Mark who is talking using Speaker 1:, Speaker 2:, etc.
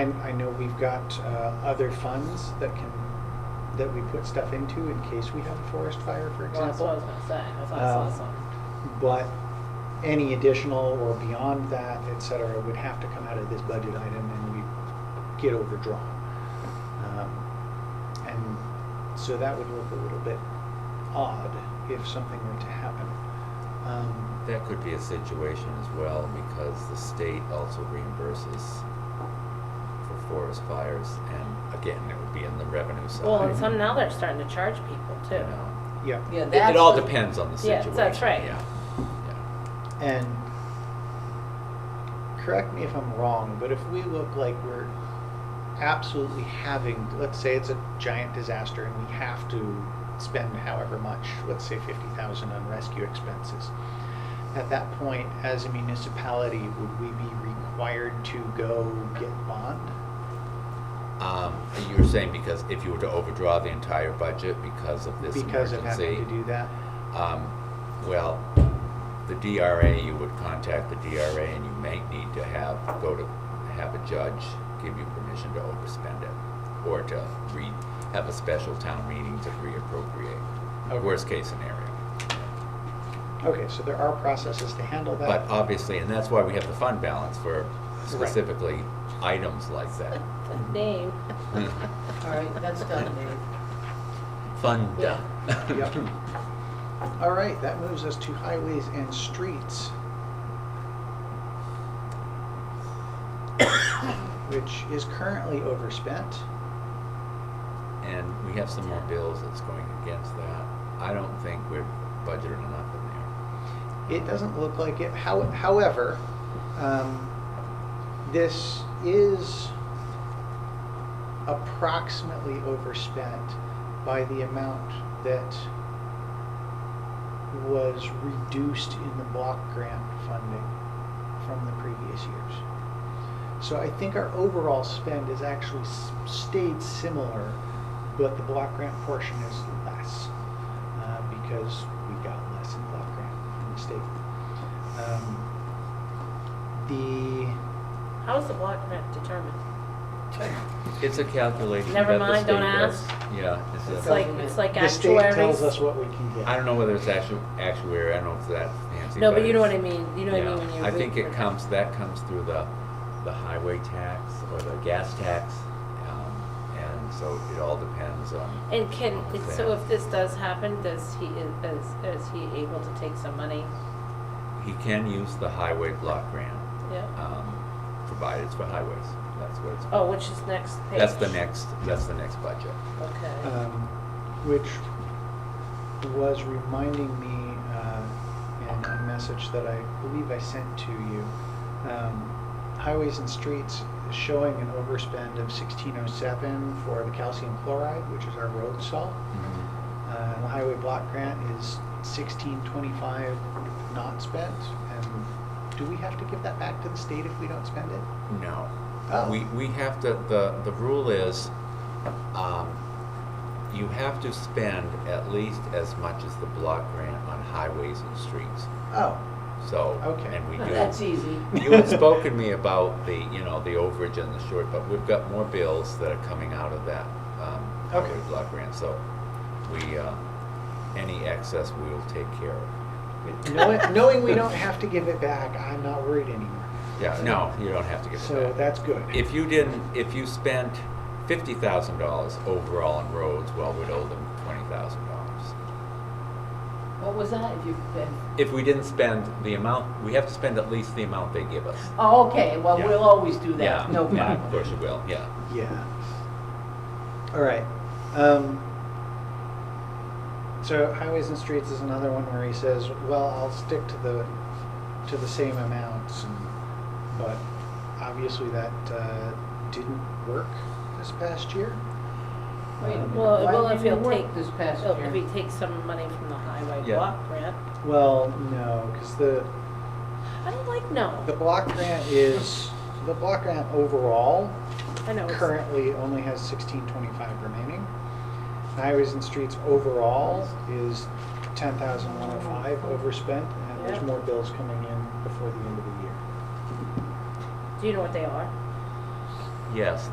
Speaker 1: I, I know we've got uh, other funds that can, that we put stuff into in case we have a forest fire, for
Speaker 2: Well, that's what I was
Speaker 1: example.
Speaker 2: gonna say, that's
Speaker 3: Um,
Speaker 2: awesome.
Speaker 1: But any additional or beyond that, et cetera, would have to come out of this budget item and we get overdrawn. Um, And so that would look a little bit odd if something were to happen. Um,
Speaker 3: That could be a situation as well, because the state also reimburses for forest fires, and again, it would be in the revenue side.
Speaker 2: Well, and some now they're starting to charge people
Speaker 3: You
Speaker 2: too.
Speaker 3: know.
Speaker 1: Yeah.
Speaker 4: Yeah,
Speaker 3: It-
Speaker 4: that's
Speaker 3: It all
Speaker 4: the-
Speaker 3: depends on the
Speaker 2: Yeah,
Speaker 3: situation.
Speaker 2: that's right.
Speaker 3: Yeah, yeah.
Speaker 1: And correct me if I'm wrong, but if we look like we're absolutely having, let's say it's a giant disaster and we have to spend however much, let's say 50,000 on rescue expenses. At that point, as a municipality, would we be required to go get bond?
Speaker 3: Um, and you were saying because if you were to overdraw the entire budget because of this
Speaker 1: Because of
Speaker 3: emergency,
Speaker 1: having to do that?
Speaker 3: Um, well, the DRA, you would contact the DRA and you may need to have, go to, have a judge give you permission to overspend it or to re, have a special town meeting to reappropriate,
Speaker 1: Okay.
Speaker 3: worst case scenario.
Speaker 1: Okay, so there are processes to handle that.
Speaker 3: But obviously, and that's why we have the fund balance for specifically items like that.
Speaker 2: The name.
Speaker 4: All right, that's done, Dave.
Speaker 3: Fund.
Speaker 2: Yeah.
Speaker 1: Yep. All right, that moves us to highways and streets. Which is currently overspent.
Speaker 3: And we have some more bills that's going against that. I don't think we're budgeted enough in there.
Speaker 1: It doesn't look like it, how, however, um, this is approximately overspent by the amount that was reduced in the block grant funding from the previous years. So I think our overall spend has actually s- stayed similar, but the block grant portion is less uh, because we got less in block grant from the state. Um, The,
Speaker 2: How is the block grant determined?
Speaker 3: It's a calculation.
Speaker 2: Never
Speaker 3: that the
Speaker 2: mind, don't
Speaker 3: state does.
Speaker 2: ask.
Speaker 3: Yeah. a-
Speaker 2: It's like, it's like
Speaker 1: the state
Speaker 2: actuaries.
Speaker 1: tells us what we can get.
Speaker 3: I don't know whether it's actu- actuary, I don't know if it's that fancy.
Speaker 2: No, but you know what I
Speaker 3: it's-
Speaker 2: mean, you know what I
Speaker 3: yeah.
Speaker 2: mean when you're.
Speaker 3: I think
Speaker 2: reading
Speaker 3: it
Speaker 2: it.
Speaker 3: comes, that comes through the, the highway tax or the gas tax. um, And so it all depends on.
Speaker 2: And can,
Speaker 3: on
Speaker 2: it-
Speaker 3: that.
Speaker 2: so if this does happen, does he, is, is he able to take some money?
Speaker 3: He can use the highway block grant,
Speaker 2: Yeah.
Speaker 3: um, provided it's for highways. That's what it's.
Speaker 2: Oh, which is next page?
Speaker 3: That's the next, that's the next budget.
Speaker 2: Okay.
Speaker 1: um, which was reminding me uh, in a message that I believe I sent to you. Um, highways and streets is showing an overspend of 1607 for the calcium chloride, which is our road salt.
Speaker 3: Hmm.
Speaker 1: Uh, and the highway block grant is 1625 not spent. And do we have to give that back to the state if we don't spend it?
Speaker 3: No.
Speaker 1: Oh.
Speaker 3: We, we have to, the, the rule is, um, you have to spend at least as much as the block grant on highways and streets,
Speaker 1: Oh,
Speaker 3: so.
Speaker 1: Okay.
Speaker 3: And we do.
Speaker 4: That's easy.
Speaker 3: You had spoken to me about the, you know, the overage and the short, but we've got more bills that are coming out of that, um,
Speaker 1: Okay.
Speaker 3: highway block grant, so we, uh, any excess we will take care of.
Speaker 1: knowing, knowing we don't have to give it back, I'm not worried anymore.
Speaker 3: Yeah, no, you don't have to give it back.
Speaker 1: So that's good.
Speaker 3: If you didn't, if you spent fifty thousand dollars overall on roads, well, we'd owe them twenty thousand dollars.
Speaker 4: What was that? If you,
Speaker 3: If we didn't spend the amount, we have to spend at least the amount they give us.
Speaker 4: oh, okay, well,
Speaker 3: Yeah.
Speaker 4: we'll always do
Speaker 3: Yeah,
Speaker 4: that, no
Speaker 3: yeah,
Speaker 4: problem.
Speaker 3: Of course you will, yeah.
Speaker 1: Yeah. All right. Um, so highways and streets is another one where he says, "Well, I'll stick to the to the same amounts," and, but obviously that uh, didn't work this past year. Um,
Speaker 4: Wait a minute,
Speaker 2: Well,
Speaker 4: why
Speaker 2: well,
Speaker 4: didn't
Speaker 2: if
Speaker 4: it
Speaker 2: he'll
Speaker 4: work
Speaker 2: take.
Speaker 4: This past
Speaker 2: he'll- If he
Speaker 4: year.
Speaker 2: takes some money from the highway
Speaker 3: Yeah.
Speaker 2: block grant,
Speaker 1: Well, no, because the
Speaker 2: I don't like no.
Speaker 1: the block grant is the block grant overall
Speaker 2: I know. it's-
Speaker 1: currently only has sixteen twenty-five remaining. Highways and streets overall is ten thousand one oh five overspent, and there's
Speaker 2: Yeah.
Speaker 1: more bills coming in before the end of the year.
Speaker 2: Do you know what they are?
Speaker 3: yes,